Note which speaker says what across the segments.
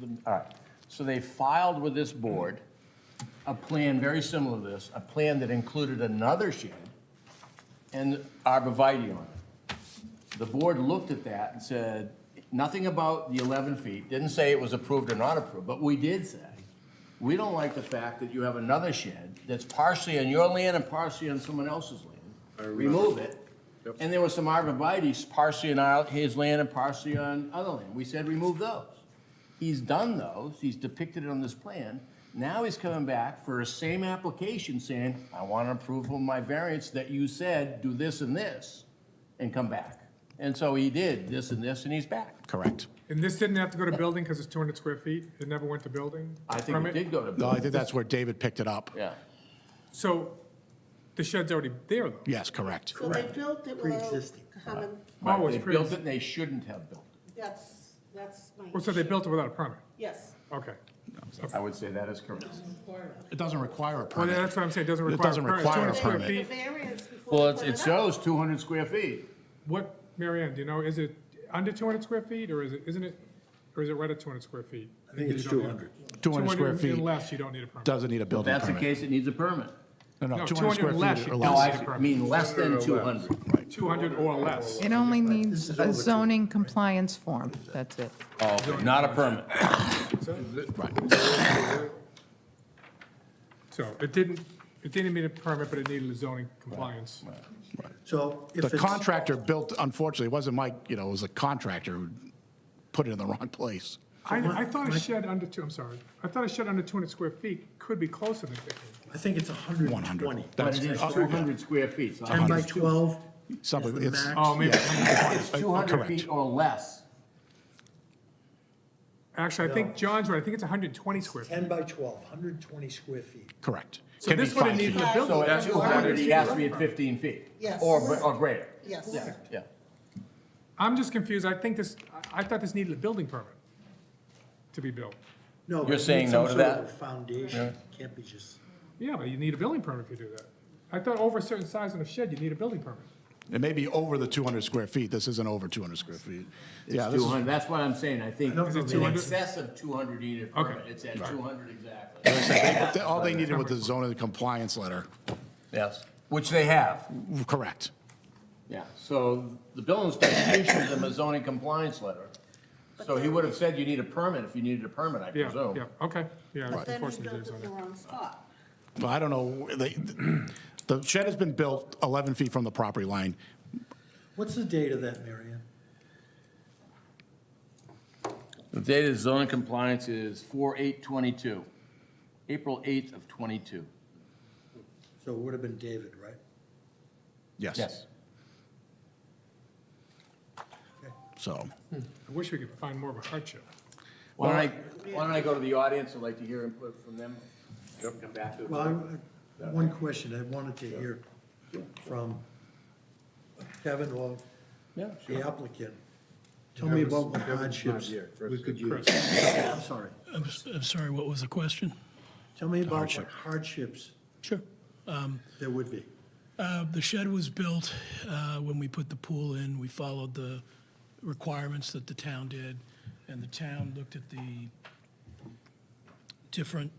Speaker 1: the- all right. So they filed with this board a plan very similar to this, a plan that included another shed and arborvitae on it. The board looked at that and said, nothing about the 11 feet, didn't say it was approved or not approved, but we did say, we don't like the fact that you have another shed that's partially on your land and partially on someone else's land. Remove it. And there were some arborvitae's partially on our- his land and partially on other land. We said, remove those. He's done those, he's depicted it on this plan. Now he's coming back for a same application saying, I want approval of my variance that you said, do this and this, and come back. And so he did this and this, and he's back.
Speaker 2: Correct.
Speaker 3: And this didn't have to go to building because it's 200 square feet? It never went to building?
Speaker 1: I think it
Speaker 3: permit?
Speaker 1: did go to,
Speaker 2: No, I
Speaker 1: bill-
Speaker 2: think that's where David picked it up.
Speaker 1: yeah.
Speaker 3: So the shed's already there, though?
Speaker 2: Yes, correct.
Speaker 4: So they built it without
Speaker 5: Pre-existing.
Speaker 4: having,
Speaker 3: Oh, it's
Speaker 1: They built
Speaker 3: pre-
Speaker 1: it, and they shouldn't have built
Speaker 4: that's, that's my.
Speaker 3: Well, Oh, so they
Speaker 4: issue.
Speaker 3: built it without a permit?
Speaker 4: Yes.
Speaker 3: Okay.
Speaker 1: it. I would say that is correct.
Speaker 2: It doesn't require a
Speaker 3: Well,
Speaker 2: permit.
Speaker 3: that's what I'm saying, it doesn't
Speaker 2: It
Speaker 3: require.
Speaker 2: doesn't require a
Speaker 3: 200
Speaker 4: They
Speaker 3: square
Speaker 4: did
Speaker 2: permit.
Speaker 4: the
Speaker 3: feet.
Speaker 4: variance before.
Speaker 1: Well,
Speaker 4: they
Speaker 1: it's,
Speaker 4: put
Speaker 1: it
Speaker 4: up.
Speaker 1: shows 200 square feet.
Speaker 3: What, Marianne? do you know, is it under 200 square feet or is it, isn't it, or is it right at 200 square feet?
Speaker 5: I think it's
Speaker 3: You don't need a-
Speaker 5: 200.
Speaker 2: 200 square
Speaker 3: and
Speaker 2: feet
Speaker 3: less, you don't need a permit.
Speaker 2: doesn't need a
Speaker 1: If
Speaker 2: building
Speaker 1: that's the
Speaker 2: permit.
Speaker 1: case, it needs a permit.
Speaker 2: No, no,
Speaker 3: No,
Speaker 2: 200 square
Speaker 3: 200
Speaker 2: feet or
Speaker 3: less.
Speaker 1: No,
Speaker 2: less.
Speaker 1: I mean less than 200.
Speaker 3: 200 or less.
Speaker 6: It only needs a zoning compliance form, that's it.
Speaker 1: Oh, okay, not a permit.
Speaker 3: So it didn't, it didn't need a permit, but it needed a zoning compliance.
Speaker 5: So if
Speaker 2: The
Speaker 5: it's,
Speaker 2: contractor built, unfortunately, it wasn't Mike, you know, it was a contractor who put it in the wrong place.
Speaker 3: I, I thought a shed under two, I'm sorry, I thought a shed under 200 square feet could be closer than 50.
Speaker 5: I think it's 120.
Speaker 2: 100.
Speaker 1: But
Speaker 2: That's
Speaker 1: it is
Speaker 2: uh,
Speaker 1: 200 square feet. so
Speaker 5: 10 by 12 is the
Speaker 2: something, it's, uh,
Speaker 5: max.
Speaker 3: Oh, maybe.
Speaker 1: It's 200
Speaker 2: Oh, correct.
Speaker 1: feet or less.
Speaker 3: Actually, I think John's right, I think it's 120 square feet.
Speaker 5: 10 by 12, 120 square feet.
Speaker 2: correct.
Speaker 3: So
Speaker 2: Can be
Speaker 3: this would have
Speaker 2: five
Speaker 3: needed
Speaker 2: feet.
Speaker 3: a
Speaker 1: So
Speaker 3: building.
Speaker 1: at 200, it has to be at 15 feet.
Speaker 4: Yes.
Speaker 1: Or, gre- or greater.
Speaker 4: Yes.
Speaker 1: Yeah, yeah.
Speaker 3: I'm just confused, I think this, I- I thought this needed a building permit to be built.
Speaker 5: No, but
Speaker 1: You're
Speaker 5: it
Speaker 1: saying
Speaker 5: needs some
Speaker 1: no to
Speaker 5: sort of
Speaker 1: that?
Speaker 5: a Foundation, can't be just,
Speaker 3: Yeah, but you need a building permit if you do that. I thought over a certain size on a shed, you need a building permit.
Speaker 2: It may be over the 200 square feet. This isn't over 200 square feet. Yeah, this is
Speaker 1: 200, that's what I'm saying, I think
Speaker 5: don't know
Speaker 1: it's
Speaker 5: the
Speaker 1: in
Speaker 3: number.
Speaker 1: excess of 200 unit
Speaker 3: Okay.
Speaker 1: permit, it's at 200 exactly.
Speaker 2: Like I said, they- All they needed was the zoning compliance letter.
Speaker 1: Yes. Which they have.
Speaker 2: Correct.
Speaker 1: Yeah, so the building inspector issued them a zoning compliance letter. So he would have said you need a permit if you needed a permit, I
Speaker 3: Yeah,
Speaker 1: presume.
Speaker 3: yeah, okay, yeah.
Speaker 4: But then he
Speaker 3: unfortunately,
Speaker 4: built
Speaker 3: there's
Speaker 4: it in
Speaker 3: only-
Speaker 4: the wrong spot.
Speaker 2: Well, I don't know, they, the shed has been built 11 feet from the property line.
Speaker 5: what's the date of that, Mary Ann?
Speaker 1: The date of zoning compliance is 4/8/22, April 8th of '22.
Speaker 5: So it would have been David, right?
Speaker 2: Yes. So,
Speaker 3: I wish we could find more of a hardship.
Speaker 1: Why don't I, why don't I go to the audience, I'd like to hear input from them. Come back to it.
Speaker 5: Well, I- I- one question I wanted to hear from Kevin or
Speaker 1: Yeah,
Speaker 5: the applicant. Tell me about what hardships we could use. I'm sorry.
Speaker 7: I'm, s- I'm sorry, what was the question?
Speaker 5: Tell me about what hardships
Speaker 7: Sure.
Speaker 2: Um,
Speaker 5: there would be.
Speaker 7: Uh, the shed was built, uh, when we put the pool in, we followed the requirements that the town did, and the town looked at the different,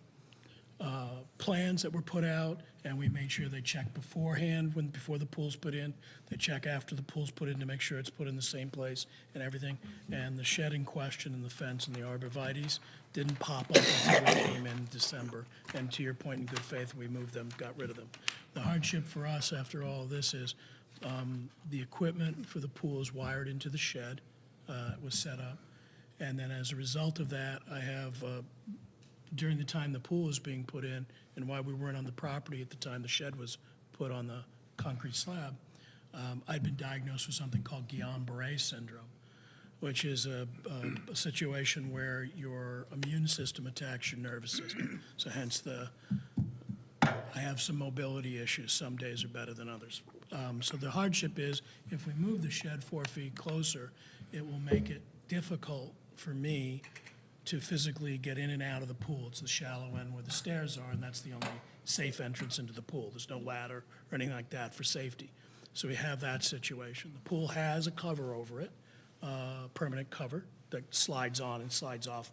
Speaker 7: uh, plans that were put out, and we made sure they checked beforehand, when, before the pool's put in, they check after the pool's put in to make sure it's put in the same place and everything, and the shed in question and the fence and the arborvitae's didn't pop up until we came in December, and to your point, in good faith, we moved them, got rid of them. The hardship for us after all this is, um, the equipment for the pool is wired into the shed, uh, it was set up, and then as a result of that, I have, uh, during the time the pool was being put in and why we weren't on the property at the time the shed was put on the concrete slab, um, I'd been diagnosed with something called Guillain-Barré syndrome, which is a, a, a situation where your immune system attacks your nervous system. So hence the, I have some mobility issues. Some days are better than others. Um, So the hardship is, if we move the shed four feet closer, it will make it difficult for me to physically get in and out of the pool. It's the shallow end where the stairs are, and that's the only safe entrance into the pool. There's no ladder or anything like that for safety. So we have that situation. The pool has a cover over it, uh, permanent cover that slides on and slides off